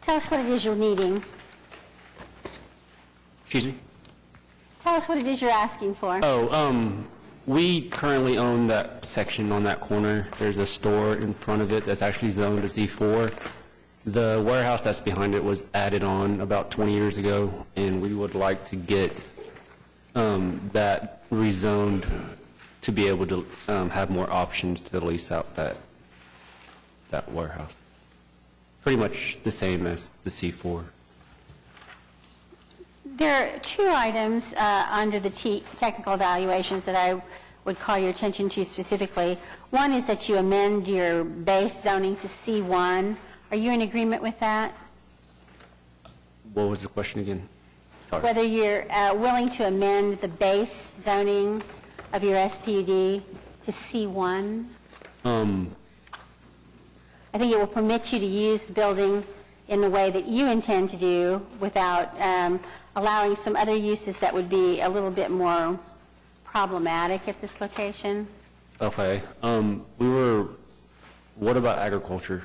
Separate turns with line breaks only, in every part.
Tell us what it is you're needing.
Excuse me?
Tell us what it is you're asking for.
Oh, um, we currently own that section on that corner. There's a store in front of it that's actually zoned as E4. The warehouse that's behind it was added on about 20 years ago, and we would like to get um, that rezoned to be able to um, have more options to lease out that, that warehouse. Pretty much the same as the C4.
There are two items uh, under the te- technical evaluations that I would call your attention to specifically. One is that you amend your base zoning to C1. Are you in agreement with that?
What was the question again? Sorry.
Whether you're uh, willing to amend the base zoning of your SPUD to C1?
Um,
I think it will permit you to use the building in the way that you intend to do without um, allowing some other uses that would be a little bit more problematic at this location.
Okay, um, we were, what about agriculture?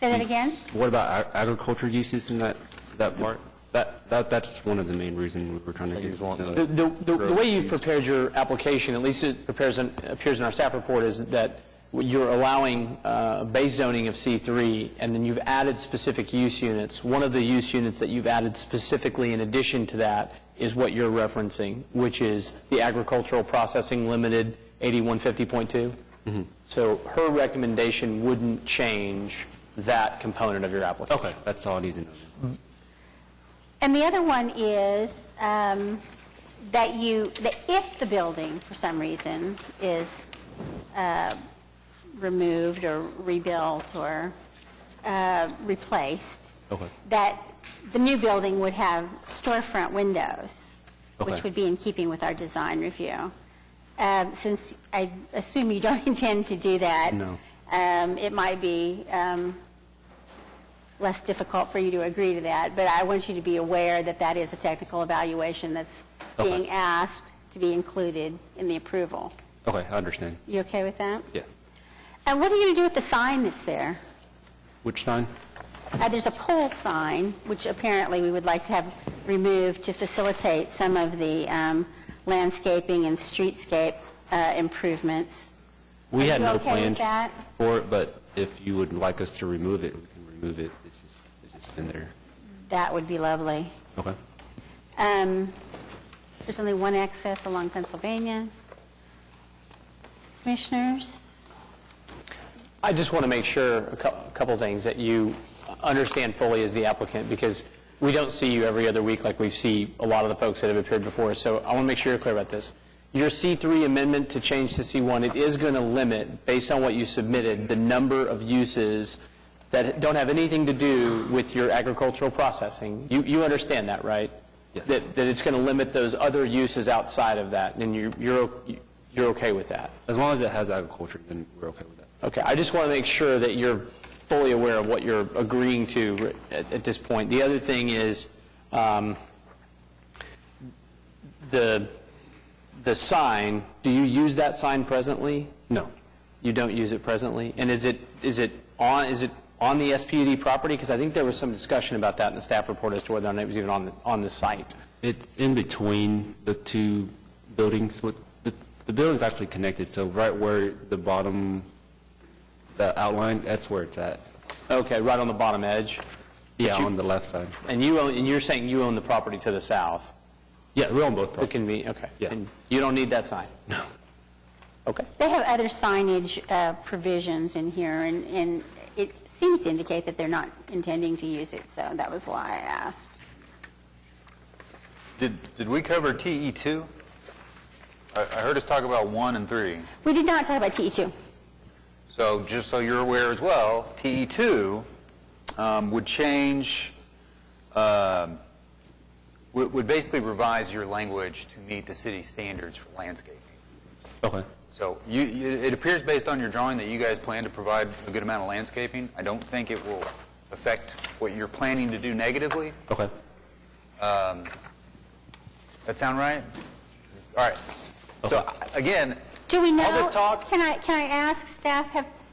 Say that again?
What about ag- agriculture uses in that, that part? That, that, that's one of the main reasons we were trying to get.
The,
zoned.
the, the the way you've prepared your application, at least it prepares, in- appears in our staff report, is that you're allowing uh, base zoning of C3, and then you've added specific use units. One of the use units that you've added specifically in addition to that is what you're referencing, which is the agricultural processing limited 8150.2. So her recommendation wouldn't change that component of your application.
Okay, that's all I need to know.
And the other one is um, that you, that if the building, for some reason, is uh, removed or rebuilt or uh, replaced,
Okay.
that the new building would have storefront windows, which
Okay.
would be in keeping with our design review. Um, Since I assume you don't intend to do that.
No.
um, It might be um, less difficult for you to agree to that, but I want you to be aware that that is a technical evaluation that's
Okay.
being asked to be included in the approval.
Okay, I understand,
You okay with that?
yes.
And what are you going to do with the sign that's there?
Which sign?
Uh, There's a pole sign, which apparently we would like to have removed to facilitate some of the um, landscaping and streetscape uh, improvements.
We
Are
had
you
no
okay with
plans
that?
for it, but if you would like us to remove it, we can remove it. It's just, it's just been there.
That would be lovely.
Okay.
Um, There's only one access along Pennsylvania. Commissioners?
I just want to make sure a cou- a couple things that you understand fully as the applicant, because we don't see you every other week like we see a lot of the folks that have appeared before, so I want to make sure you're clear about this. Your C3 amendment to change to C1, it is going to limit, based on what you submitted, the number of uses that don't have anything to do with your agricultural processing. You, you understand that, right?
Yes.
That, that it's going to limit those other uses outside of that, and you you're, o- you're okay with that?
As long as it has agriculture, then we're okay with that.
Okay, I just want to make sure that you're fully aware of what you're agreeing to at at this point. The other thing is, um, the, the sign, do you use that sign presently?
No.
You don't use it presently? And is it, is it on, is it on the SPUD property? Because I think there was some discussion about that in the staff report as to whether or not it was even on, the on the site.
It's in between the two buildings. What- The the building's actually connected, so right where the bottom, the outline, that's where it's at.
Okay, right on the bottom edge.
Yeah,
you-
on the left side.
And you own, and you're saying you own the property to the south?
Yeah, we're on both
It
properties.
can be, okay.
Yeah.
And you don't need that sign?
No.
Okay.
They have other signage uh, provisions in here, and- and it seems to indicate that they're not intending to use it, so that was why I asked.
Did, did we cover TE2? I, I heard us talk about 1 and 3.
We did not talk about TE2.
So just so you're aware as well, TE2 um, would change, um, would would basically revise your language to meet the city standards for landscaping.
Okay.
So you, you- it appears based on your drawing that you guys plan to provide a good amount of landscaping. I don't think it will affect what you're planning to do negatively.
Okay.
That sound right? All right. So
Okay.
again,
Do we know?
All this talk-
Can I, can I ask staff, have